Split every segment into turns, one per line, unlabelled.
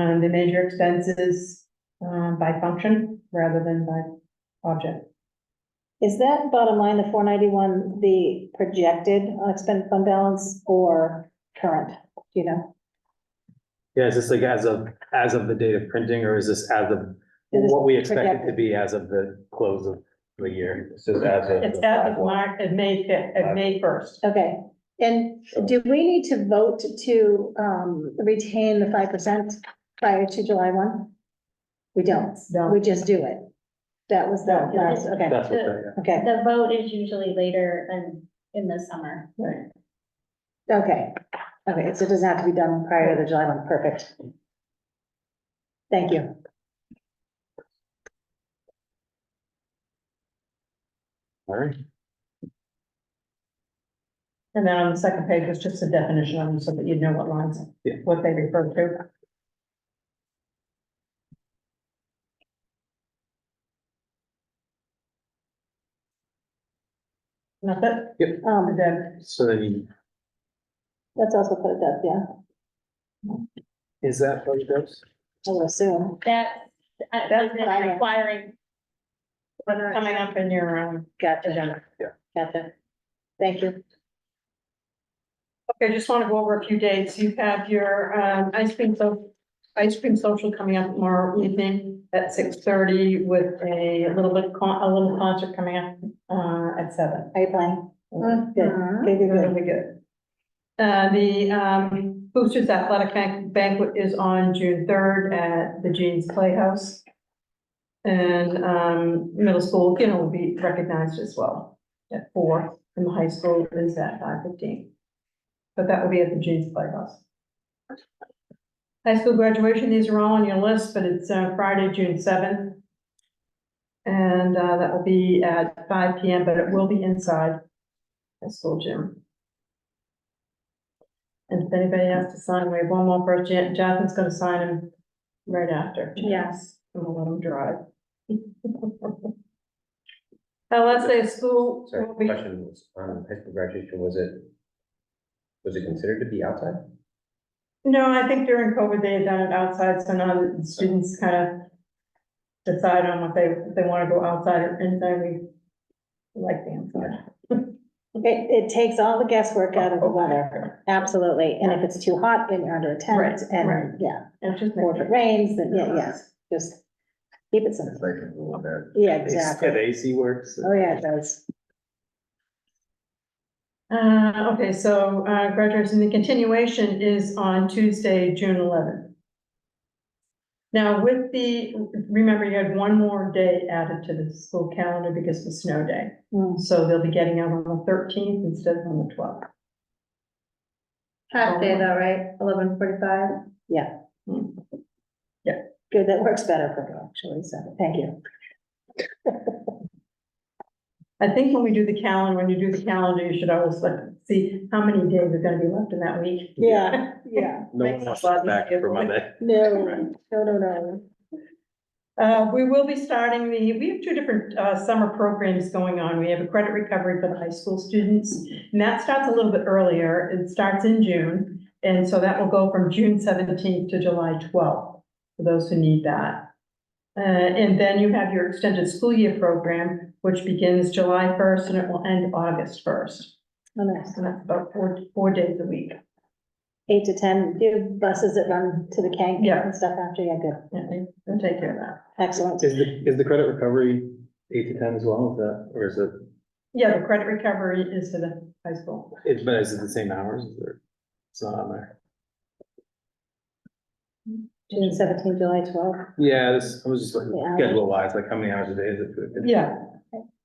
Um, they measure expenses, um, by function rather than by object.
Is that bottom line, the four ninety-one, the projected unexpended fund balance or current, Do you know?
Yeah, is this like as of, as of the date of printing, or is this as of
This is
what we expect it to
projected.
be as of the close of the year?
This is as of.
It's
the
as of
5/1.
March, of May fifth, of May first.
Okay, and do we need to vote to, um, retain the five percent prior to July one? We don't,
No.
we just do it. That was the
No.
last, okay,
That's what, that-
okay,
The vote is usually later than in the summer.
Right.
okay, okay, so it doesn't have to be done prior to the July one, perfect. Thank you.
all right.
And then on the second page was just a definition on them so that you'd know what lines,
Yeah.
what they refer to. Not that,
Um,
then,
So then, you-
that's also put it up, yeah,
is that what it does?
I would assume.
That, uh,
That's
is it
fine.
requiring,
what's coming up in your, um,
Gotcha.
agenda.
Gotcha. Thank you.
Okay, just want to go over a few dates. You have your um ice cream so, ice cream social coming up tomorrow evening at six thirty with a little bit, con- a little concert coming up uh at seven.
Are you playing?
Uh-huh. Good.
Good, good, good.
Really good. Uh, the um Boosters Athletic Ban- Banquet is on June third at the Jeans Playhouse. And um middle school, you know, will be recognized as well at four, and the high school is at five fifteen. But that will be at the Jeans Playhouse. High school graduation, these are all on your list, but it's uh, Friday, June seventh. And uh, that will be at five P M, but it will be inside the school gym. And if anybody has to sign, we have one more person, Jonathan's gonna sign him right after.
Yes.
I'm gonna let him drive. Now, let's say school.
Sorry,
will be-
question was, on high school graduation, was it, was it considered to be outside?
No, I think during COVID, they had done it outside, so now the students kind of decide on what they, if they want to go outside or inside, we like the inside.
It, it takes all the guesswork out of the
Oh,
weather, absolutely. And if it's too hot, then you're under a
Right,
tent
right.
and, yeah,
It's just.
or if it rains, then, yeah, yes, just keep it simple. Yeah,
Yeah, the
exactly.
AC works.
Oh, yeah, it does.
Uh, okay, so, uh, graduation, the continuation is on Tuesday, June eleventh. Now with the, remember you had one more day added to the school calendar because of the snow day.
Mm.
So they'll be getting out on the thirteenth instead of on the twelfth.
Half
Um,
day though, right? Eleven forty-five.
Good, that works better for me, actually, so, thank you.
I think when we do the calendar, when you do the calendar, you should always look, see how many days are gonna be left in that week.
Yeah, yeah.
No
Makes
one
us
wants
laugh.
us back for Monday.
No, no, no, no.
Uh, we will be starting the, we have two different, uh, summer programs going on. We have a credit recovery for the high school students. And that starts a little bit earlier. It starts in June. And so that will go from June seventeenth to July twelfth, for those who need that. Uh, and then you have your extended school year program, which begins July first and it will end August first.
Oh, nice.
So that's about four, four days a week.
Eight to ten, do you have buses that run to the Kank
Yeah.
and stuff after, yeah, good,
Yeah, they- they'll take care of that.
excellent.
Is the, is the credit recovery eight to ten as well, is that, or is it,
Yeah, the credit recovery is for the high school.
it, but is it the same hours, Is there- It's not on there.
June seventeenth, July twelfth.
Yeah, this, I was just like,
Yeah.
schedule wise, like how many hours a day is it?
Yeah,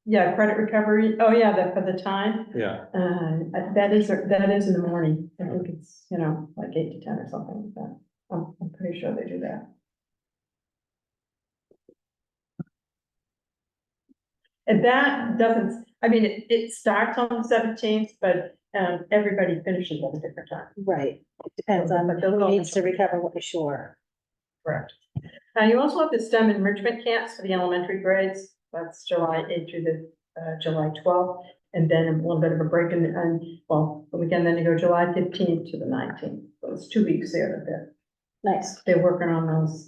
yeah, credit recovery, oh, yeah, that for the time,
Yeah,
uh, that is, that is in the morning, I think it's, you know, like eight to ten or something like that. I'm, I'm pretty sure they do that. And that doesn't, I mean, it, it starts on the seventeenth, but, um, everybody finishes at a different time.
Right, it depends on
But they'll
who
go-
needs to recover what, sure.
Correct. Uh, you also have the STEM enrichment camps for the elementary grades. That's July eighth through the, uh, July twelfth. And then a little bit of a break in, and, well, the weekend, then you go July fifteenth to the nineteenth. So it's two weeks there, that they're
Nice.
They're working on those.